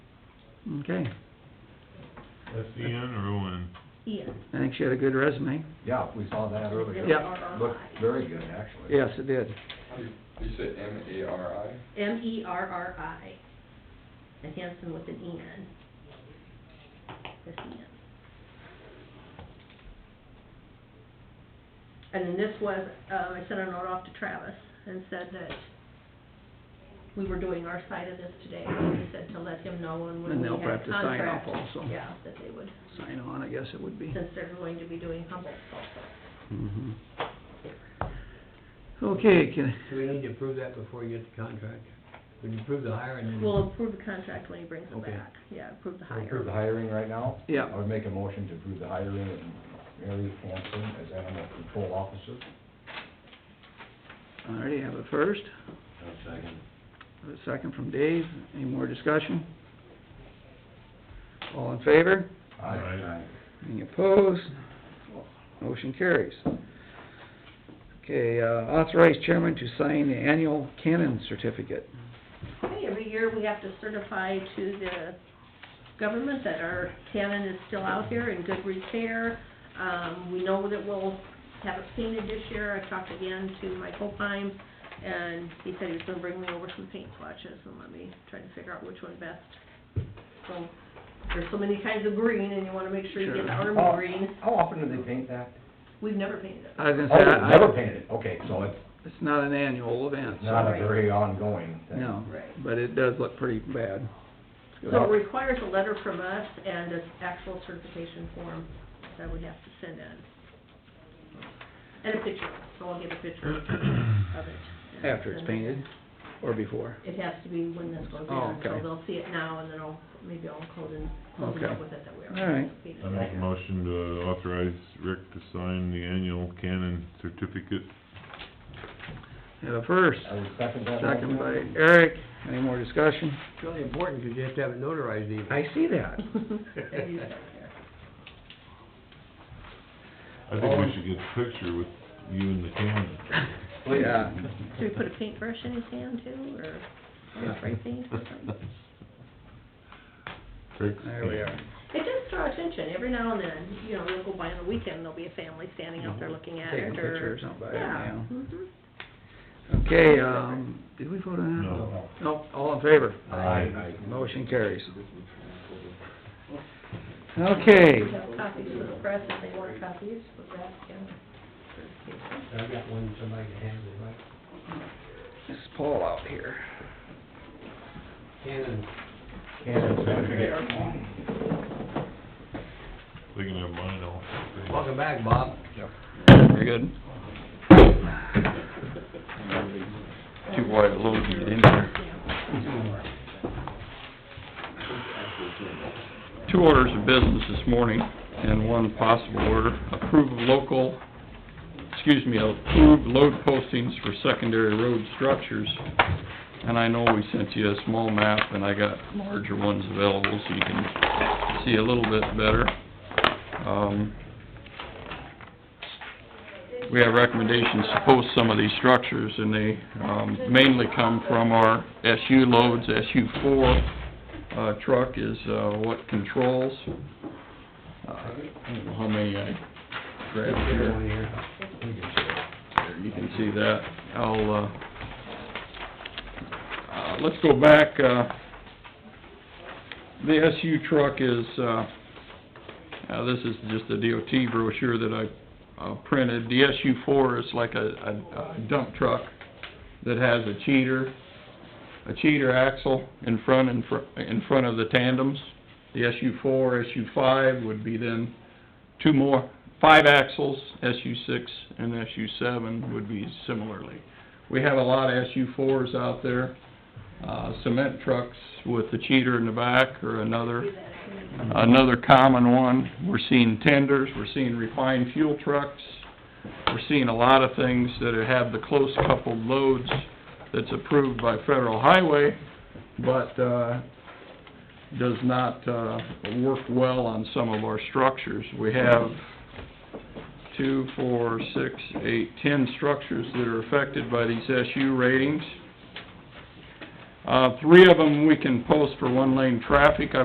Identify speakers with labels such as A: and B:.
A: Okay,
B: S-E-N or O-N?
C: Ian.
A: I think she had a good resume.
D: Yeah, we saw that earlier.
A: Yeah.
C: E
D: Looked very good, actually.
A: Yes, it did.
E: You said M A R I?
C: M E R R I. And Hanson with an E N. This E N. And then this was, um, I sent a note off to Travis and said that we were doing our side of this today. I said to let him know and when
A: And
C: we
A: they'll
C: had
A: have
C: a
A: to sign off
C: contract.
A: also.
C: Yeah, that they would,
A: Sign on, I guess it would be.
C: since they're going to be doing Humboldt also.
A: Mhm. Okay, can,
F: Do we need to approve that before you get the contract? When you approve the hiring, then...
C: We'll approve the contract when he brings it
F: Okay.
C: back. Yeah, approve the
D: We Mm-hmm. Approve the
C: hire.
D: hiring right now?
A: Yeah.
D: I would make a motion to approve the hiring of Mary Hanson as animal control officer.
A: I already have a first,
D: second.
A: a second from Dave. Any more discussion? All in favor?
D: Aye.
A: Any opposed? Motion carries. Okay, uh, authorize chairman to sign the annual canon certificate.
C: Okay, every year we have to certify to the government that our cannon is still out here in good repair. Um, we know that we'll have it painted this year. I talked again to Mike Opine, and he said he was gonna bring me over some paint swatches and let me try to figure out which one best. So, there's so many kinds of green, and you wanna make sure you get the
A: Sure.
C: army green.
D: How often do they paint that?
C: We've never painted it.
A: I was gonna
D: Oh,
A: say,
D: they've
A: I-
D: never
A: I,
D: painted, okay, so it's
A: it's not an annual event, so-
D: not a very ongoing thing.
A: No,
C: Right.
A: but it does look pretty bad.
C: So it requires a letter from us and an actual certification form that we have to send in. And a picture, so I'll get a picture of it. and
A: After it's
C: send it.
A: painted, or before?
C: It has to be when this goes
A: Oh,
C: in, so
A: okay.
C: they'll see it now and then I'll, maybe I'll close in, close it
A: Okay.
C: up with it that we
A: All
C: are.
A: right.
B: I make a motion to authorize Rick to sign the annual canon certificate.
A: Have a first,
D: I would second that.
A: second by
D: motion.
A: Eric, any more discussion?
F: It's really important, because you have to have it notarized even.
A: I see that.
C: There you go, there.
B: I think we should get a picture with you and the canon.
D: Please.
A: Oh, Yeah.
C: Should we put a paintbrush in his hand too, or or spray paint or something?
B: Rick's
A: There we are.
B: canon.
C: It does draw attention, every now and then, you know, they'll go by on the weekend, there'll be a family standing out there looking at
A: Take a
C: it, or...
A: picture or something,
C: Yeah.
A: yeah.
C: mhm.
A: Okay, um, did we vote on that?
B: No.
A: No, all in favor?
D: Aye.
A: Motion carries. Okay,
C: We have copies for the press, if they want copies of that, yeah.
F: I've got one somebody can handle, right?
A: this is Paul out here.
F: Cannon,
D: Cannon certificate.
B: They can have mine all.
F: welcome back, Bob.
A: You're good.
E: Too wide a load to get in there.
G: two orders of business this morning, and one possible order. Approve of local, excuse me, approve load postings for secondary road structures. And I know we sent you a small map, and I got larger ones available, so you can see a little bit better. Um, We have recommendations to post some of these structures, and they um, mainly come from our SU loads, SU four, uh, truck is, uh, what controls. Uh, I don't know how many I grabbed
F: Get one
G: here.
F: here.
G: You can see that. I'll, uh, uh, let's go back, uh, the SU truck is, uh, uh, this is just a DOT brochure that I, uh, printed. The SU four is like a, a a dump truck that has a cheater, a cheater axle in front, in fr- in front of the tandems. The SU four, SU five would be then two more, five axles, SU six and SU seven would be similarly. We have a lot of SU fours out there, uh, cement trucks with the cheater in the back or another, another common one. We're seeing tenders, we're seeing refined fuel trucks, we're seeing a lot of things that have the close coupled loads that's approved by federal highway, but, uh, does not, uh, work well on some of our structures. We have two, four, six, eight, ten structures that are affected by these SU ratings. Uh, three of them we can post for one lane traffic, I